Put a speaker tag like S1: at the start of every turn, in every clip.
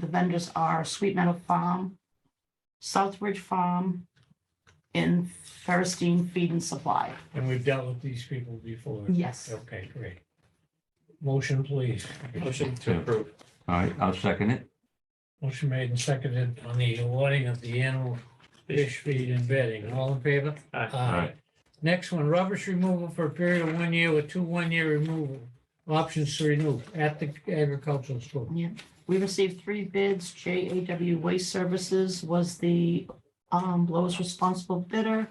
S1: The vendors are Sweet Meadow Farm, Southbridge Farm, and Ferristine Feed and Supply.
S2: And we've dealt with these people before.
S1: Yes.
S2: Okay, great. Motion, please.
S3: Motion to approve.
S4: All right, I'll second it.
S2: Motion made and seconded on the awarding of the animal fish feed and bedding. All in favor?
S3: Aye.
S2: Next one, rubbish removal for a period of one year with two one-year removal options to renew at the agricultural school.
S1: Yeah, we received three bids. JAW Waste Services was the um, lowest responsible bidder.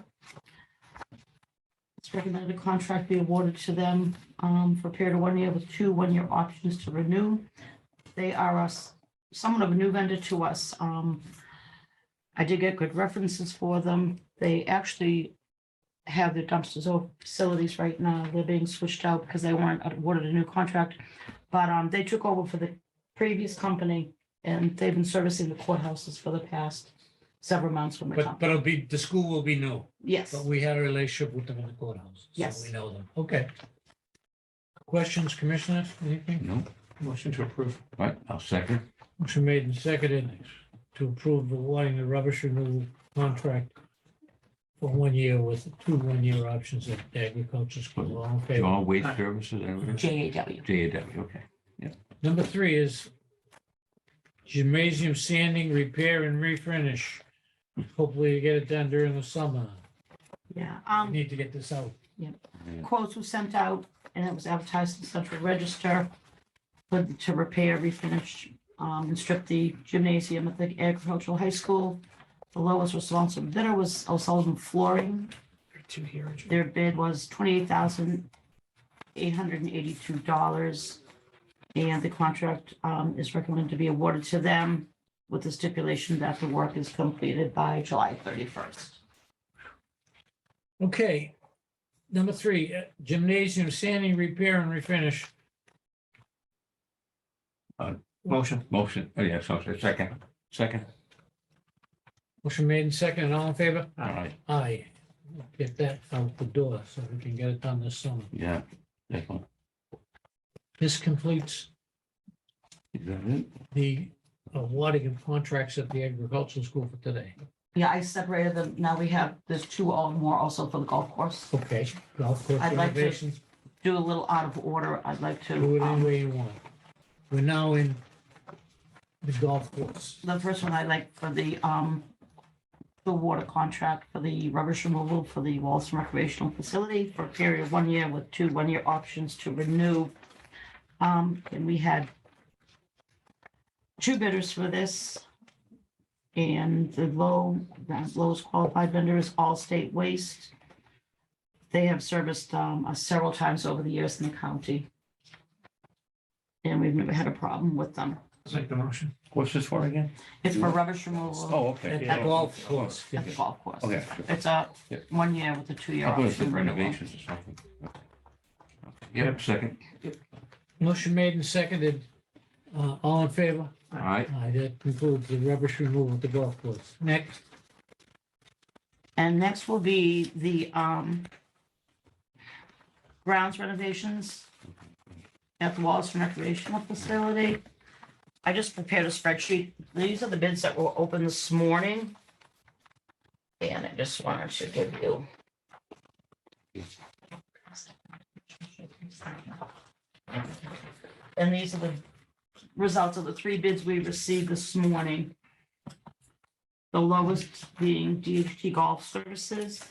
S1: It's recommended a contract be awarded to them um, for a period of one year with two one-year options to renew. They are us, somewhat of a new vendor to us. Um, I did get good references for them. They actually have their dumpsters or facilities right now. They're being switched out because they weren't awarded a new contract. But um, they took over for the previous company, and they've been servicing the courthouses for the past several months from the
S2: But,
S1: company.
S2: but it'll be, the school will be new,
S1: Yes,
S2: but we had a relationship with them in the courthouse. so
S1: Yes.
S2: We know them. Okay. Questions, commissioners? Anything?
S4: No,
S3: Motion to approve.
S4: all right, I'll second.
S2: Motion made and seconded to approve the awarding the rubbish removal contract for one year with two one-year options at the agriculture school. All in favor?
S4: All waste services, everything?
S1: JAW.
S4: JAW, okay.
S2: Number three is gymnasium sanding, repair and refurnish. Hopefully you get it done during the summer.
S1: Yeah,
S2: We
S1: um,
S2: Need to get this out.
S1: quotes were sent out and it was advertised in the central register for, to repair, refinish, um, and strip the gymnasium at the agricultural high school. The lowest responsible bidder was O'Sullivan Flooring.
S3: Two here.
S1: Their bid was twenty-eight thousand eight hundred and eighty-two dollars. And the contract, um, is recommended to be awarded to them with the stipulation that the work is completed by July thirty-first.
S2: Okay. Number three, uh, gymnasium sanding, repair and refinish.
S3: Motion.
S4: Motion, oh, yes, I'll say second, second.
S2: Motion made and seconded. All in favor?
S4: All right,
S2: Aye. Get that out the door so we can get it done this summer.
S4: yeah. Definitely.
S2: This completes
S4: Is that it?
S2: the uh, awarding of contracts at the agricultural school for today.
S1: Yeah, I separated them. Now we have, there's two all more also for the golf course.
S2: Okay, golf course
S1: I'd like to-
S2: renovations.
S1: Do a little out of order. I'd like
S2: Do
S1: to,
S2: it any
S1: um,
S2: way you want. We're now in the golf course.
S1: the first one I like for the, um, the water contract for the rubbish removal for the Walton recreational facility for a period of one year with two one-year options to renew. Um, and we had two bidders for this. And the low, the lowest qualified vendor is Allstate Waste. They have serviced, um, us several times over the years in the county. And we've never had a problem with them.
S3: Make the motion.
S4: What's this for again?
S1: It's for rubbish removal
S4: Oh,
S2: At
S4: okay.
S2: the golf course.
S1: at the golf course.
S4: Okay.
S1: It's a
S4: Yeah.
S1: one year with a two year
S4: I thought it was
S1: option renewal.
S4: renovations or something. Okay. Yep, second,
S2: Motion made and seconded. Uh, all in favor?
S4: all right,
S2: Aye, that concludes the rubbish removal at the golf course. Next,
S1: And next will be the um grounds renovations at the Wallace recreational facility. I just prepared a spreadsheet. These are the bids that were open this morning. And I just wanted to give you. And these are the results of the three bids we received this morning. The lowest being DHT Golf Services.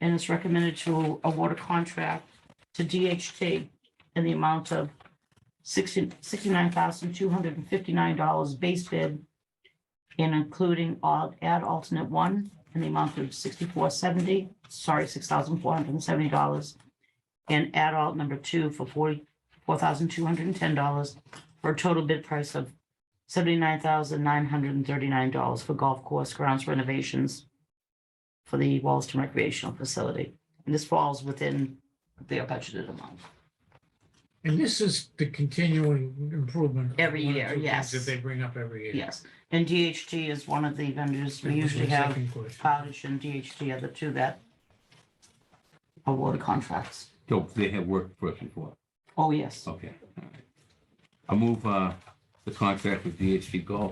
S1: And it's recommended to award a contract to DHT in the amount of sixty, sixty-nine thousand, two hundred and fifty-nine dollars base bid. And including all, add alternate one in the amount of sixty-four seventy, sorry, six thousand four hundred and seventy dollars. And add alt number two for forty-four thousand, two hundred and ten dollars for a total bid price of seventy-nine thousand nine hundred and thirty-nine dollars for golf course grounds renovations for the Wallaston recreational facility. And this falls within their budgeted amount.
S2: and this is the continuing improvement. of
S1: Every
S2: one or
S1: year,
S2: two things
S1: yes.
S2: That they bring up every year.
S1: Yes, and DHT is one of the vendors. We
S2: That was
S1: usually
S2: my
S1: have uh,
S2: second question.
S1: Powdish and DHT are the two that award contracts.
S4: so they have worked for us before,
S1: Oh, yes.
S4: okay. all right. I move, uh, the contract with DHT Golf